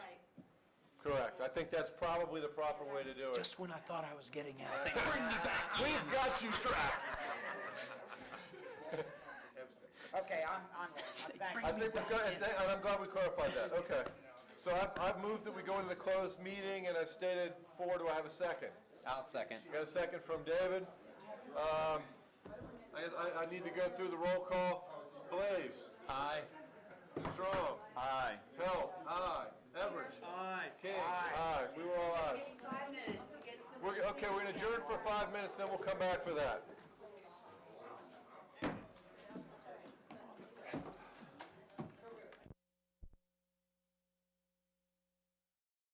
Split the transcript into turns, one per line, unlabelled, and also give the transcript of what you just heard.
Correct. I think that's probably the proper way to do it.
Just when I thought I was getting out.
We've got you trapped.
Okay, I'm, I'm, thank
I think we've got, and I'm glad we clarified that, okay. So I've, I've moved that we go into the closed meeting, and I've stated four, do I have a second?
I'll second.
Got a second from David. Um, I, I, I need to go through the roll call. Blaze,
Aye.
Strong,
Aye.
Hill, aye. Everett,
Aye.
King, aye. We were all ayes.
Five minutes to get some.
We're, okay, we're gonna adjourn for five minutes, then we'll come back for that.